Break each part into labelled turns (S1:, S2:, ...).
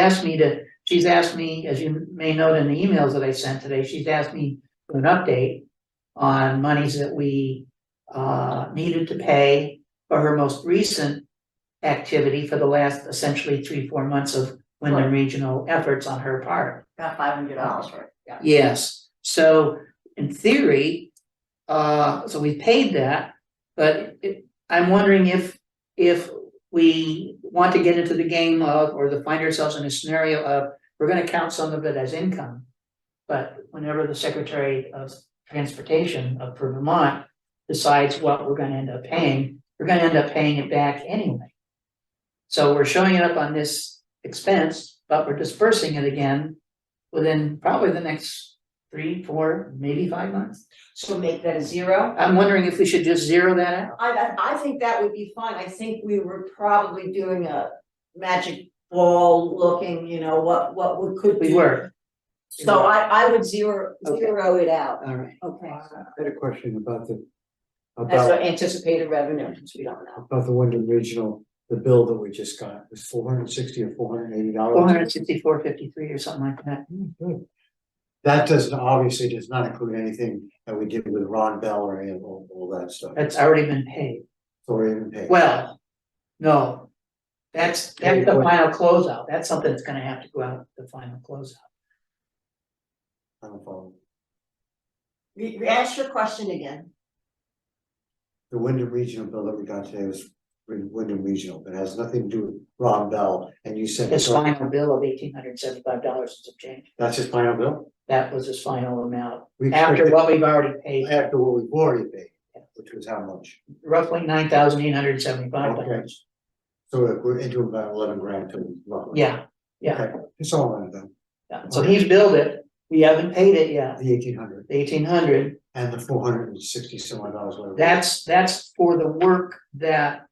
S1: asked me to, she's asked me, as you may note in the emails that I sent today, she's asked me for an update on monies that we uh needed to pay for her most recent activity for the last essentially three, four months of Wyndham
S2: Right.
S1: Regional efforts on her part.
S2: got five hundred dollars for it, yeah.
S1: Yes, so in theory, uh, so we paid that, but it, I'm wondering if, if we want to get into the game of, or to find ourselves in a scenario of, we're gonna count some of it as income. But whenever the Secretary of Transportation of Vermont decides what we're gonna end up paying, we're gonna end up paying it back anyway. So we're showing it up on this expense, but we're dispersing it again within probably the next three, four, maybe five months.
S2: So make that a zero?
S1: I'm wondering if we should just zero that out.
S2: I, I, I think that would be fine, I think we were probably doing a magic ball looking, you know, what, what we could do.
S1: We were,
S2: So I, I would zero,
S1: Okay.
S2: zero it out,
S1: all right.
S2: okay,
S3: I had a question about the,
S2: that's
S3: about,
S2: our anticipated revenue, because we don't know.
S3: about the Wyndham Regional, the bill that we just got, it was four hundred sixty or four hundred eighty dollars.
S1: Four hundred sixty-four fifty-three or something like that.
S3: That doesn't, obviously does not include anything that we did with Ron Bell or any of all, all that stuff,
S1: That's already been paid.
S3: or even pay.
S1: Well, no. That's, that's the final closeout. That's something that's gonna have to go out, the final closeout.
S3: I don't follow.
S2: Re- re- ask your question again,
S3: The Wyndham Regional bill that we got today was Wy- Wyndham Regional, but it has nothing to do with Ron Bell, and you said.
S1: His final bill of eighteen hundred seventy-five dollars and some change.
S3: That's his final bill?
S1: That was his final amount.
S3: We
S1: After
S3: expected-
S1: what we've already paid,
S3: After what we've already paid, which was how much?
S1: roughly nine thousand eight hundred seventy-five dollars.
S3: So we're into about eleven grand to roughly.
S1: Yeah, yeah.
S3: Okay, It's all right then,
S1: yeah. So he's billed it. We haven't paid it yet.
S3: the eighteen hundred
S1: eighteen hundred,
S3: and the four hundred and sixty some odd dollars, whatever.
S1: that's, that's for the work that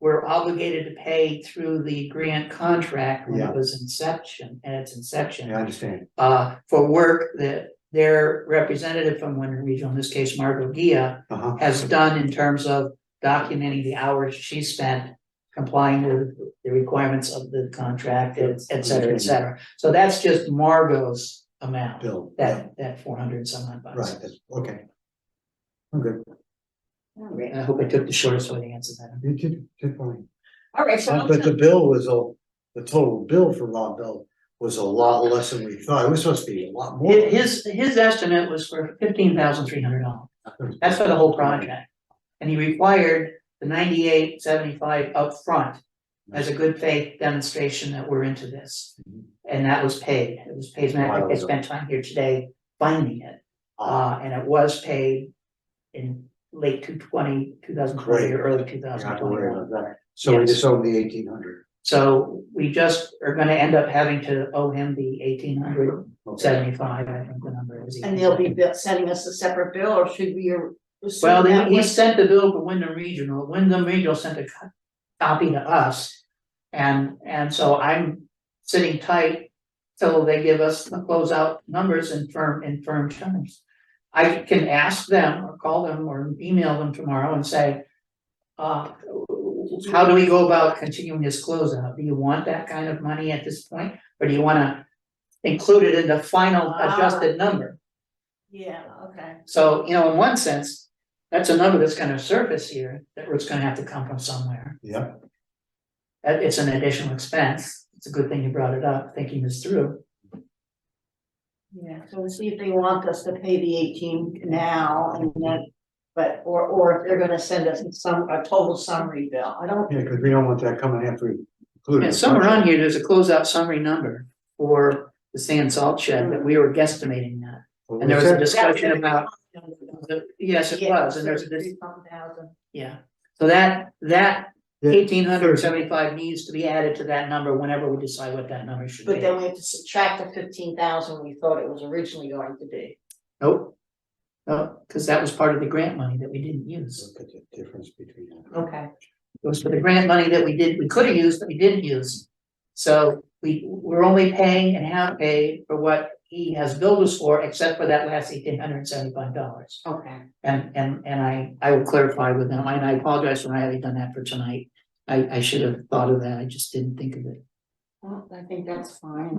S1: we're obligated to pay through the grant contract when
S3: Yeah.
S1: it was inception, at its
S3: Yeah, I
S1: inception.
S3: understand,
S1: Uh, for work that their representative from Winter Regional, in this case Margot Gia,
S3: uh huh.
S1: has done in terms of documenting the hours she spent complying with the requirements of the contract, et et cetera, et cetera. So that's just Margot's amount,
S3: Bill, yeah,
S1: that, that four hundred and some odd bucks.
S3: right, that's, okay. I'm good,
S2: alright,
S1: I hope I took the shortest way to answer that.
S3: you did, did fine,
S2: alright, so.
S3: Uh, but the bill was a, the total bill for Rob Bell was a lot less than we thought, it was supposed to be a lot more.
S1: His, his estimate was for fifteen thousand three hundred dollars, that's for the whole project. And he required the ninety-eight seventy-five upfront as a good faith demonstration that we're into this.
S3: Mhm.
S1: And that was paid, it was paid, and I think I spent time here today finding it,
S3: Ah,
S1: uh, and it was paid in late 2020, 2020, or early two
S3: I don't
S1: thousand
S3: have to worry
S1: twenty-one.
S3: about that, so we
S1: Yes.
S3: just owe him the eighteen hundred.
S1: So we just are gonna end up having to owe him the eighteen hundred seventy-five, I think the number is.
S2: And they'll be bill- sending us a separate bill, or should we? uh, assume
S1: Well,
S2: that
S1: they, he
S2: was-
S1: sent the bill to Wyndham Regional, Wyndham Regional sent a co- copy to us. And, and so I'm sitting tight till they give us the closeout numbers in firm, in firm terms. I can ask them or call them or email them tomorrow and say, uh, how do we go about continuing this closeout? Do you want that kind of money at this point? Or do you wanna include it in the final
S2: Ah.
S1: adjusted number?
S2: Yeah, okay.
S1: So, you know, in one sense, that's a number that's gonna surface here, that it's gonna have to come from somewhere.
S3: Yeah,
S1: That it's an additional expense. It's a good thing you brought it up, thinking this through.
S2: Yeah, so we'll see if they want us to pay the eighteen now and then, but, or, or if they're gonna send us some, a total summary bill, I don't.
S3: yeah, cause we don't want that coming after we include.
S1: And somewhere on here, there's a closeout summary number for the sand salt shed that we were guesstimating that. And there was a discussion about, yes, it was, and there's a, dis- yeah. So that, that
S3: Yeah.
S1: eighteen hundred seventy-five needs to be added to that number whenever we decide what that number should
S2: But
S1: be.
S2: then we have to subtract the fifteen thousand we thought it was originally going to be.
S1: Nope. No, Oh, cause that was part of the grant money that we didn't use.
S3: Look at the difference between that.
S2: Okay.
S1: It was for the grant money that we did, we could have used, but we didn't use. So we, we're only paying and have paid for what he has billed us for, except for that last eighteen hundred and seventy-five dollars.
S2: Okay.
S1: And, and, and I, I will clarify with them, and I apologize for not having done that for tonight. I, I should have thought of that, I just didn't think of it. Well, I think that's fine.